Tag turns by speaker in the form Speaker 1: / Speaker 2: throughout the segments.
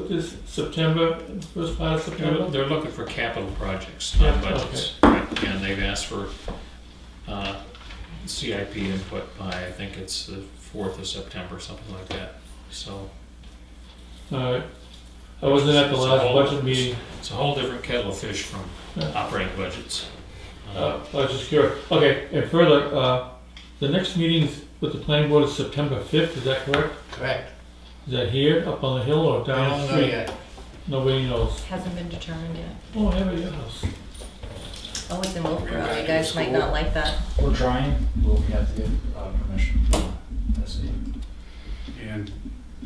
Speaker 1: is September, first part of
Speaker 2: They're,
Speaker 1: September?
Speaker 2: they're looking for capital projects,
Speaker 1: Yeah,
Speaker 2: not budgets. Right, And they've asked for uh, CIP input by, I think it's the 4th of September, something like that. So
Speaker 1: All right. I wasn't at the
Speaker 2: It's a
Speaker 1: last
Speaker 2: whole-
Speaker 1: budget meeting.
Speaker 2: it's a whole different kettle of fish from
Speaker 1: Yeah.
Speaker 2: operating budgets. Uh,
Speaker 1: Uh, I was just curious. Okay, and further, uh, the next meeting is with the planning board is September fifth, is that correct?
Speaker 3: Correct.
Speaker 1: Is that here, up on the hill, or
Speaker 3: We
Speaker 1: down the
Speaker 3: don't know
Speaker 1: street?
Speaker 3: yet.
Speaker 1: Nobody knows.
Speaker 4: Hasn't been determined yet.
Speaker 1: Oh, have at your house.
Speaker 4: Oh, it's in Wilbur,
Speaker 2: Yeah,
Speaker 4: you guys might not like that.
Speaker 5: We're trying, but we have to get uh, permission from the city.
Speaker 6: And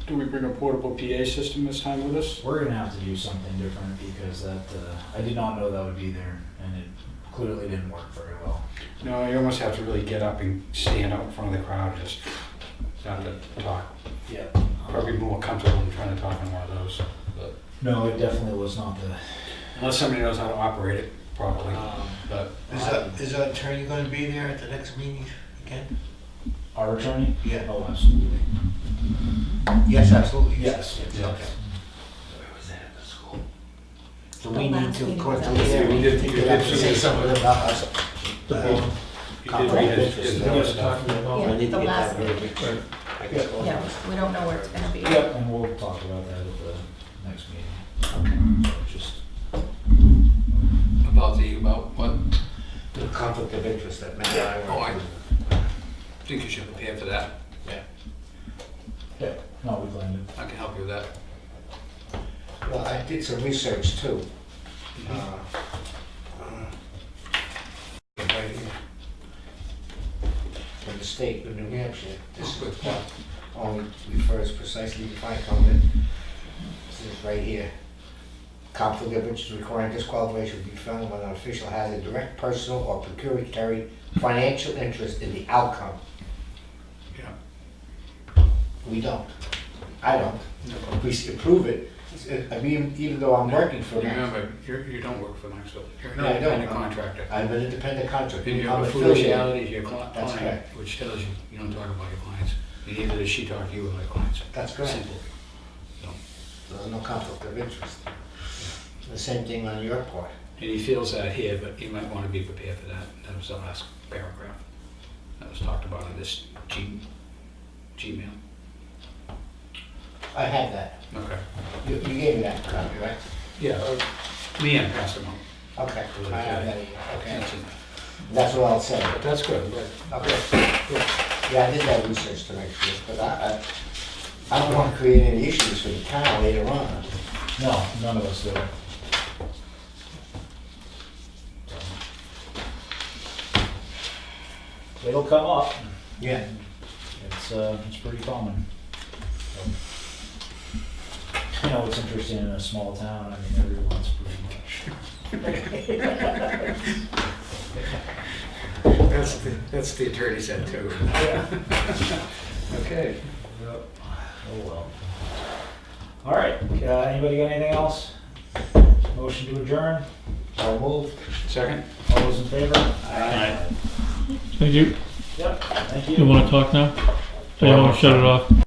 Speaker 6: do we bring a portable PA system this time with us?
Speaker 5: We're gonna have to do something different because that, uh, I did not know that would be there and it clearly didn't work very well.
Speaker 6: No, you almost have to really get up and stand out in front of the crowd, and just not to talk.
Speaker 5: Yeah.
Speaker 6: Probably more comfortable than trying to talk in one of those,
Speaker 5: No, it definitely was not the,
Speaker 6: unless somebody knows how to operate it properly.
Speaker 7: Uh,
Speaker 5: um,
Speaker 6: But
Speaker 3: Is our, is our attorney gonna be there at the next meeting again?
Speaker 5: our attorney.
Speaker 3: Yeah.
Speaker 5: Oh, absolutely.
Speaker 3: Yes, absolutely.
Speaker 5: Yes, yes,
Speaker 3: Okay.
Speaker 5: yes.
Speaker 3: Where was that at the school?
Speaker 5: So
Speaker 4: The
Speaker 5: we need
Speaker 4: last
Speaker 5: to,
Speaker 4: meeting
Speaker 3: Go
Speaker 4: was
Speaker 3: to
Speaker 4: at-
Speaker 3: there, we did,
Speaker 6: You
Speaker 3: we
Speaker 6: did
Speaker 3: did
Speaker 6: see
Speaker 3: say something about us. Uh,
Speaker 1: The board.
Speaker 6: you did read his- his
Speaker 1: We
Speaker 6: notes
Speaker 1: were talking about-
Speaker 4: Yeah.
Speaker 3: I need to
Speaker 4: The
Speaker 3: get
Speaker 4: last-
Speaker 3: that very big.
Speaker 1: Right.
Speaker 3: I guess we'll-
Speaker 4: Yeah, we don't know where it's gonna be.
Speaker 5: yep, and we'll talk about that at the next meeting. Just,
Speaker 7: About the, about what,
Speaker 3: The conflict of interest that Matt and
Speaker 7: Oh,
Speaker 3: I
Speaker 7: I-
Speaker 3: were.
Speaker 7: I think you should prepare for that,
Speaker 5: yeah, no, we planned it.
Speaker 7: I can help you with that.
Speaker 3: Well, I did some research too. Uh,
Speaker 5: Mm-hmm.
Speaker 3: uh, right here. From the state of New Hampshire, this
Speaker 7: Oh,
Speaker 3: good point, only refers precisely to my comment. This is right here. Conflict of interest requiring disqualification will be found when an official has a direct personal or pecuniary financial interest in the outcome.
Speaker 7: Yeah.
Speaker 3: We don't. I don't. If we s- approve it, s- I mean, even though I'm working for them,
Speaker 6: Remember, you're, you don't work for Knoxville, you're an
Speaker 3: Yeah, I don't.
Speaker 6: independent contractor.
Speaker 3: I'm an independent contractor.
Speaker 6: And you
Speaker 3: I'm
Speaker 6: have a
Speaker 3: affiliated.
Speaker 6: fiduciary to your cli-
Speaker 3: That's
Speaker 6: client,
Speaker 3: correct.
Speaker 6: which tells you, you don't talk about your clients, and neither does she talk to you about your clients.
Speaker 3: That's correct.
Speaker 6: Simple.
Speaker 3: There's no conflict of interest. The same thing on your part.
Speaker 6: And he feels that here, but he might want to be prepared for that. That was the last paragraph that was talked about in this G, Gmail.
Speaker 3: I have that.
Speaker 6: Okay.
Speaker 3: You, you gave me that copy, right?
Speaker 6: Yeah. Leanne passed him on.
Speaker 3: Okay, I have that here. Okay.
Speaker 6: That's it.
Speaker 3: That's what I'll say.
Speaker 6: But that's good, but
Speaker 3: Okay. Yeah, I did that research to make sure, but I, I, I don't want to create any issues for the town later on.
Speaker 5: No, none of us do. It'll come up.
Speaker 3: Yeah.
Speaker 5: It's, uh, it's pretty common. You know, it's interesting in a small town, I mean, everyone's pretty much.
Speaker 6: that's, the- that's the attorney said too. Okay.
Speaker 5: Oh, well. All right, uh, anybody got anything else? Motion to adjourn,
Speaker 3: So move.
Speaker 6: Second?
Speaker 5: all those in favor?
Speaker 6: Aye.
Speaker 1: Thank you.
Speaker 5: Yep, thank you.
Speaker 1: You wanna talk now? Or you wanna shut it off?